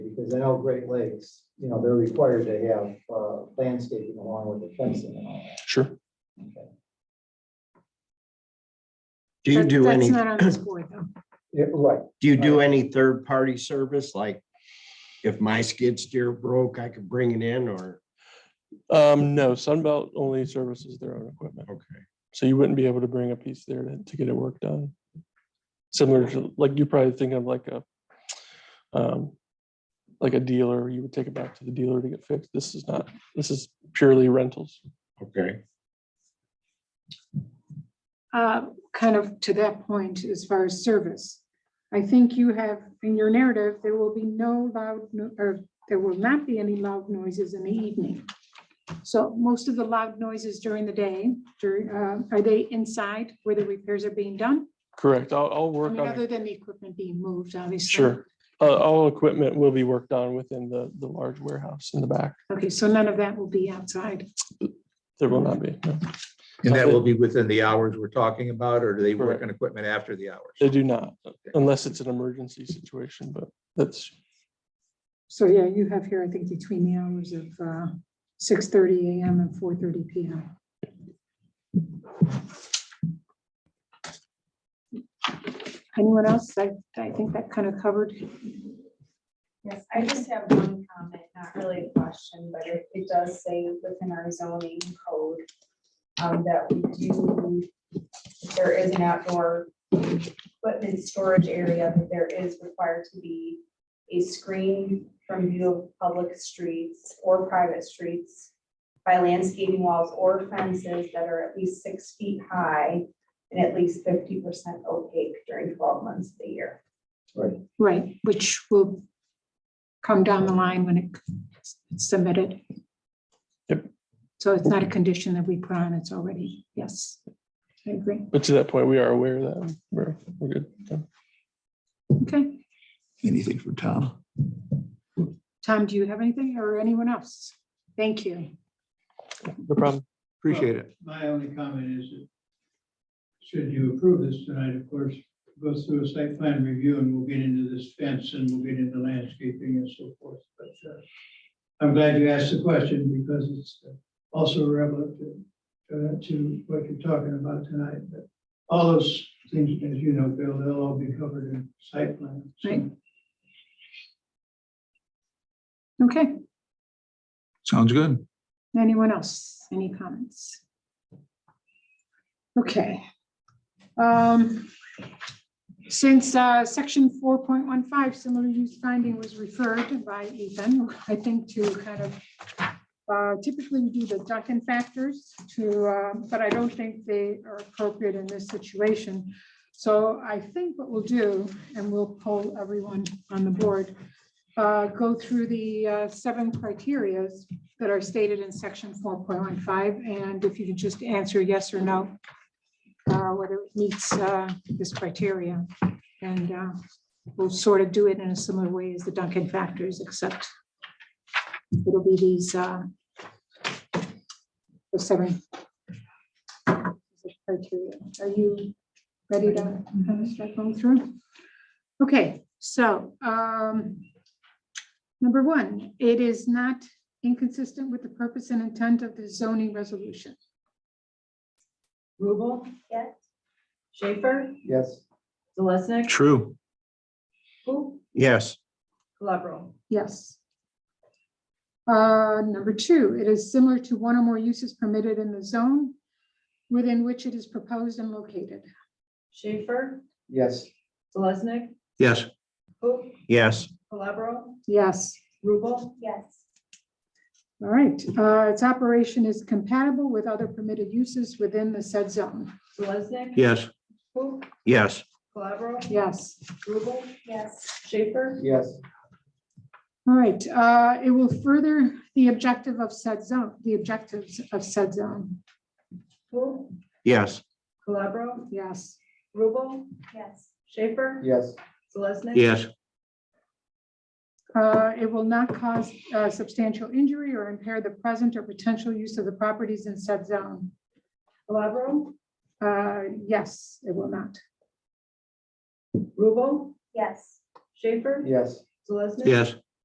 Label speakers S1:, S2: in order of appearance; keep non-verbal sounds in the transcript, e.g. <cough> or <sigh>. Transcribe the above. S1: because I know Great Lakes, you know, they're required to have uh, landscaping along with the fencing and all
S2: Sure.
S3: Do you
S4: That-
S3: do
S4: That's
S3: any,
S4: not on
S2: <clears throat>
S4: this board, though.
S1: that. Yeah, Right,
S3: do you do any third party service? Like if my skid steer broke, I could bring it in or,
S2: Um, no, Sunbelt only services their own equipment.
S3: okay.
S2: So you wouldn't be able to bring a piece there to, to get it work done. Similar to, like, you probably think of like a, um, like a dealer, you would take it back to the dealer to get fixed. This is not, this is purely rentals.
S3: Okay.
S4: Uh, Kind of to that point, as far as service, I think you have in your narrative, there will be no loud, no- or there will not be any loud noises in the evening. So most of the loud noises during the day, during, uh, are they inside where the repairs are being done?
S2: Correct. I'll, I'll
S4: I
S2: work
S4: mean,
S2: on,
S4: other
S2: it.
S4: than the equipment being moved, obviously.
S2: sure. Uh, all equipment will be worked on within the, the large warehouse in the back.
S4: Okay, so none of that will be outside.
S2: There will not be. no.
S5: And that will be within the hours we're talking about, or do they work
S2: Correct.
S5: on equipment after the hours?
S2: They do not, unless it's an emergency situation, but that's,
S4: So yeah, you have here, I think, between the hours of uh, 6:30 AM and 4:30 PM. Anyone else? I, I think that kind of covered.
S6: Yes, I just have one comment, not really a question, but it, it does say within our zoning code um, that we do, if there is an outdoor equipment storage area, that there is required to be a screen from view of public streets or private streets by landscaping walls or fences that are at least six feet high and at least fifty percent opaque during twelve months of the year.
S1: right.
S4: Right, which will come down the line when it's submitted.
S2: Yep.
S4: So it's not a condition that we put on, it's already, yes, I agree.
S2: but to that point, we are aware of that. We're, we're good. Yeah.
S4: Okay,
S7: Anything from Tom?
S4: Tom, do you have anything or anyone else? Thank you.
S2: No problem.
S5: Appreciate it.
S8: My only comment is that should you approve this tonight, of course, goes through a site plan review and we'll get into this fence and we'll get into landscaping and so forth. But uh, I'm glad you asked the question because it's also relevant to, uh, to what you're talking about tonight. But all those things, as you know, Bill, they'll all be covered in site plan. so.
S4: Right. Okay.
S7: Sounds good.
S4: Anyone else? Any comments? Okay. Um, Since uh, section 4.15, similar use finding was referred by Ethan, I think to kind of, uh, typically we do the Duncan factors to, uh, but I don't think they are appropriate in this situation. So I think what we'll do, and we'll poll everyone on the board, uh, go through the uh, seven criterias that are stated in section four point one five, and if you could just answer yes or no, uh, whether it meets uh, this criteria. And uh, we'll sort of do it in a similar way as the Duncan factors, except it'll be these uh, the seven criteria. Are you ready to kind of start going through? Okay, so um, number one, it is not inconsistent with the purpose and intent of the zoning resolution.
S9: Rubel,
S6: Yes.
S9: Schaefer,
S1: Yes,
S9: Zalesnik,
S3: True.
S9: who,
S3: Yes.
S9: Calabro.
S4: Yes. Uh, Number two, it is similar to one or more uses permitted in the zone within which it is proposed and located.
S9: Schaefer,
S1: yes,
S9: Zalesnik,
S5: Yes.
S9: who,
S3: Yes.
S9: Calabro,
S4: Yes.
S9: Rubel,
S6: Yes.
S4: All right, uh, its operation is compatible with other permitted uses within the said zone.
S9: Zalesnik.
S3: Yes.
S9: Who,
S3: Yes.
S9: Calabro,
S4: Yes.
S9: Rubel,
S6: Yes.
S9: Schaefer,
S1: yes,
S4: All right, uh, it will further the objective of said zone, the objectives of said zone.
S9: who,
S3: Yes.
S9: Calabro,
S4: Yes.
S9: Rubel,
S6: Yes.
S9: Schaefer,
S1: yes,
S9: Zalesnik.
S3: Yes.
S4: Uh, It will not cause uh, substantial injury or impair the present or potential use of the properties in said zone.
S9: Calabro,
S4: Uh, Yes, it will not.
S9: Rubel,
S6: Yes.
S9: Schaefer,
S1: yes,
S9: Zalesnik.
S3: Yes.